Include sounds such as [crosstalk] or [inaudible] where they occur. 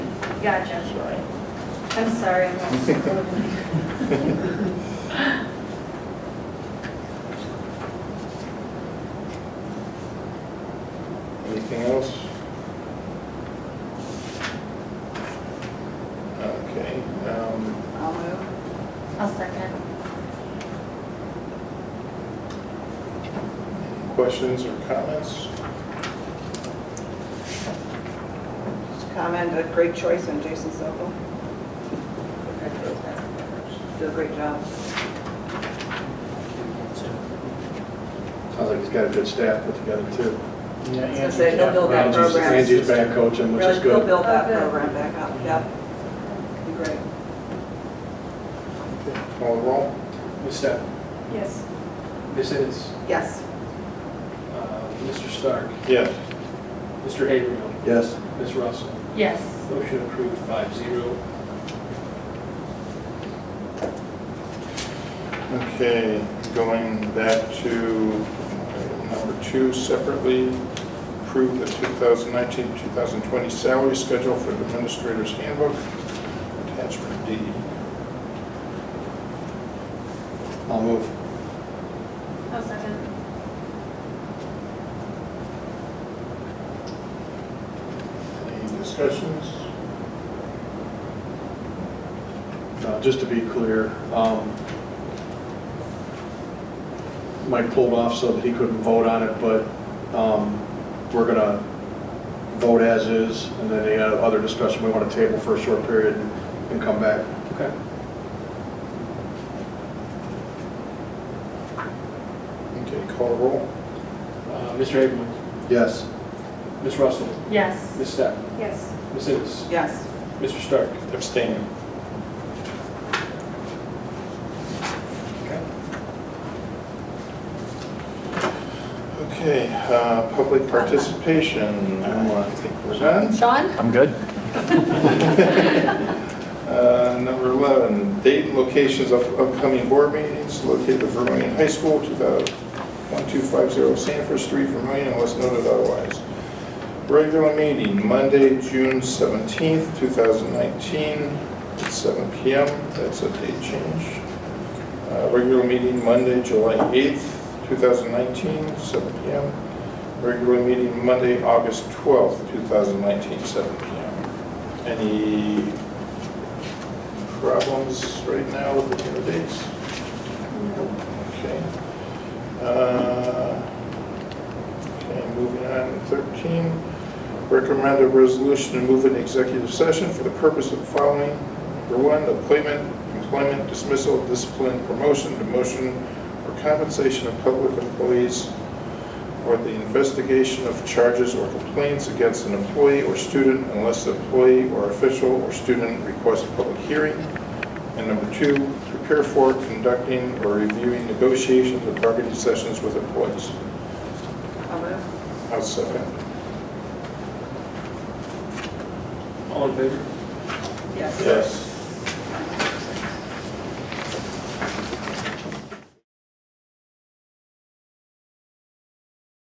Gotcha. I'm sorry, I'm not so- Anything else? Okay, um, I'll move. [laughs] I'll second. questions or comments? Just comment, a great choice on Jason Sokol. Did a great job. Sounds like he's got a good staff put together too. Yeah, I was gonna say, he'll build that Angie's, program. Angie's back coaching, which Really, is he'll good. build that Oh, good. program back up, yep. Be Great. Call the roll. Ms. Step, Yes. Ms. Ennis, Yes, uh, Mr. Stark, Yes. Mr. Haverhill, Yes. Ms. Russell. Yes. Motion approved five zero. Okay, going back to item number two separately, approve the 2019-2020 salary schedule for the administrator's handbook, attachment D. I'll move. I'll second. Any discussions? Uh, Just to be clear, um, Mike pulled off so that he couldn't vote on it, but um, we're going to vote as is, and then any other discussion we want to table for a short period and and come back. Okay. Okay, call the roll. Uh, Mr. Haverhill, Yes. Ms. Russell, Yes. Ms. Step, Yes. Ms. Ennis, yes. Mr. Stark. Abstain. Okay, uh, public participation, I think we're done. Sean? I'm good. [laughs] Uh, Number 11, date and locations of upcoming board meetings located at Vermillion High School, 1250 Sanford Street, Vermillion, unless noted otherwise. Regular meeting, Monday, June 17th, 2019, at 7 PM. That's a date change. Uh, Regular meeting, Monday, July 8th, 2019, 7 PM. Regular meeting, Monday, August 12th, 2019, 7 PM. Any problems right now with the due dates? Okay. Uh, Okay, moving on, 13, recommend a resolution to move into executive session for the purpose of the following. Number one, appointment, employment dismissal, discipline, promotion, demotion, or compensation of public employees, or the investigation of charges or complaints against an employee or student unless the employee or official or student requests a public hearing. And number two, prepare for conducting or reviewing negotiations or bargaining sessions with employees. I'll move. I'll second. All in favor? Yes. Yes.